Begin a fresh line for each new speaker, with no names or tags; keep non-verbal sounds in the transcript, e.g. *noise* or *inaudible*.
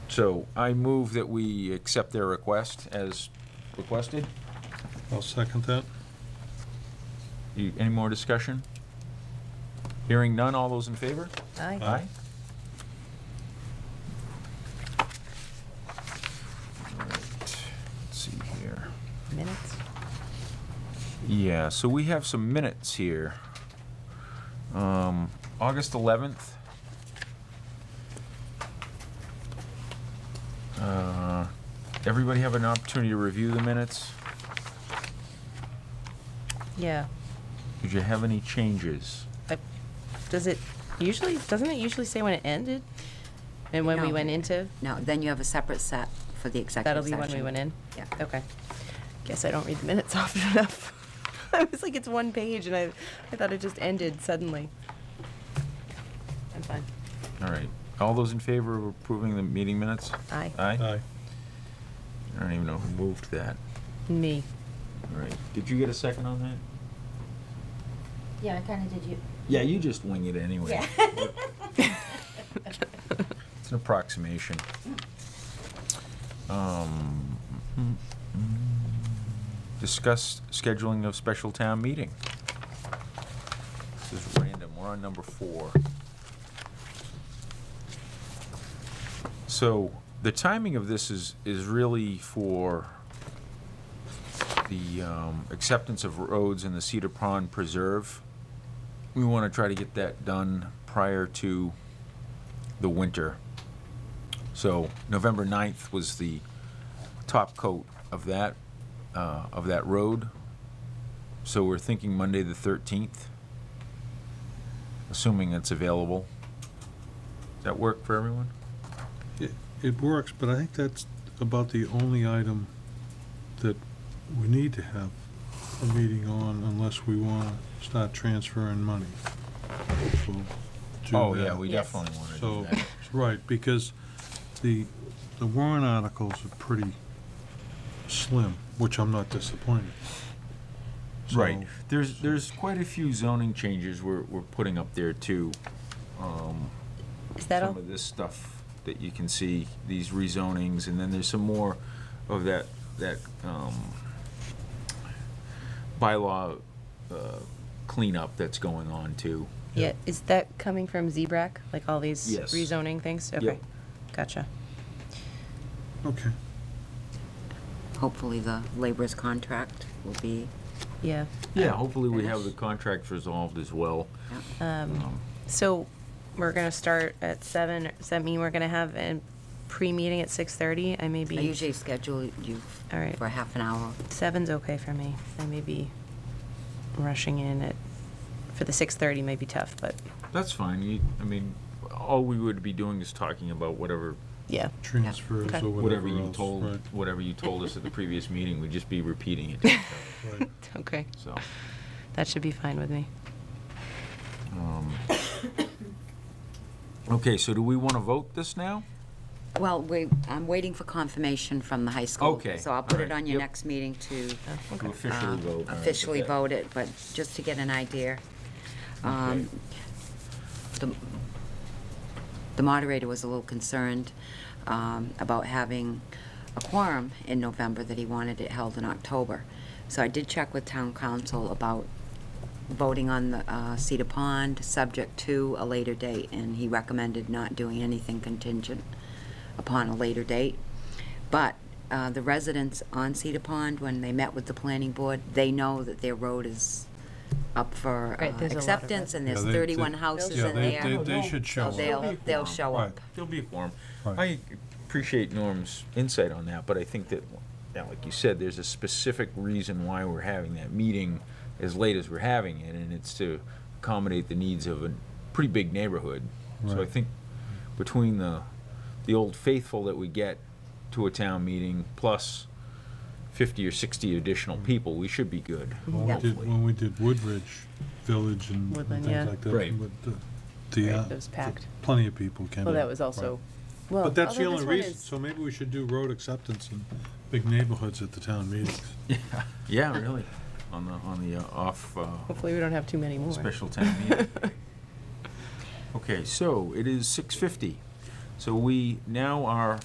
So I move that we accept their request as requested.
I'll second that.
You- Any more discussion? Hearing none, all those in favor?
Aye.
Aye.
All right, Let's see here.
Minutes?
Yeah, so we have some minutes here. Um, August 11th. Uh, Everybody have an opportunity to review the minutes?
Yeah.
Did you have any changes?
I- Does it usually, doesn't it usually say when it ended? And when we
No.
went into?
No, then you have a separate set for the
That'll
executive
be
section.
when we went in?
Yeah.
Okay. Guess I don't read the minutes *laughs* often enough. I was like, it's one page, and I, I thought it just ended suddenly. I'm fine.
All right. All those in favor of approving the meeting minutes?
Aye.
Aye?
Aye.
I don't even know who moved that.
Me. *laughs*
All right. Did you get a second on that?
Yeah, I kinda did you.
Yeah, you just wing it anyway. It's an approximation. Um, mm, mm. Discuss scheduling of special town meeting. This is random, we're on number four. So, the timing of this is, is really for the um, acceptance of roads in the Cedar Pond Preserve. We want to try to get that done prior to the winter. So November 9th was the top coat of that, uh, of that road. So we're thinking Monday, the 13th, assuming it's available. Does that work for everyone?
It- It works, but I think that's about the only item that we need to have a meeting on unless we want to start transferring money. So, do
Oh,
that.
yeah, we
Yes.
definitely want to do
So,
that.
right, because the, the warrant articles are pretty slim, which I'm not disappointed.
Right.
So-
There's, there's quite a few zoning changes we're, we're putting up there too. Um,
Is that all?
Some of this stuff that you can see, these rezonings, and then there's some more of that, that, um, bylaw, uh, cleanup that's going on too.
Yeah, is that coming from ZBRAC, like all these
Yes.
rezoning things? Okay,
Yep.
gotcha.
Okay.
Hopefully, the labor's contract will be,
Yeah.
Yeah, hopefully we have the
Finish.
contracts resolved as well.
Um,
Um,
So we're gonna start at seven, does that mean we're gonna have a pre-meeting at six thirty? I may
I
be,
usually schedule you
All right.
for half an hour.
seven's okay for me. I may be rushing in at, for the six thirty may be tough, but,
That's fine. You, I mean, all we would be doing is talking about whatever,
yeah.
Transfers
Okay.
or
whatever
whatever
you
else,
told,
right,
whatever you told us at the previous meeting, we'd just be repeating it, to *laughs* each
right.
Okay,
other, so.
that should be fine with me.
Um, *coughs* Okay, so do we want to vote this now?
Well, we, I'm waiting for confirmation from the high school.
Okay,
So I'll put
all
it
right,
on your
yep.
next meeting to
Oh,
To
Okay.
officially
um,
vote? all right,
officially
okay.
vote it, but just to get an idea. Um, The the moderator was a little concerned um, about having a quorum in November, that he wanted it held in October. So I did check with town council about voting on the uh, Cedar Pond, subject to a later date, and he recommended not doing anything contingent upon a later date. But uh, the residents on Cedar Pond, when they met with the planning board, they know that their road is up for uh,
Right, there's a lot of
acceptance, and there's
Yeah, they- they-
31 houses
yeah,
in
they-
there.
They they should show
So
up.
they'll, they'll show
Right.
up.
There'll be a quorum.
Right.
I appreciate Norm's insight on that, but I think that, now, like you said, there's a specific reason why we're having that meeting as late as we're having it, and it's to accommodate the needs of a pretty big neighborhood. So I
Right.
think between the, the old faithful that we get to a town meeting, plus fifty or sixty additional people, we should be good,
When Mm. we did,
hopefully.
when we did Woodridge Village and and
Woodland, yeah.
things like that.
Right.
with the- The,
Right,
uh,
it was packed.
plenty of people came in.
Well, that was also, well,
But that's the
although
only
this one
reason,
is-
so maybe we should do road acceptance in big neighborhoods at the town meetings.
Yeah, really, on the, on the uh, off, uh,
Hopefully we don't have too many more.
Special town meeting. Okay, so it is six fifty. So we now are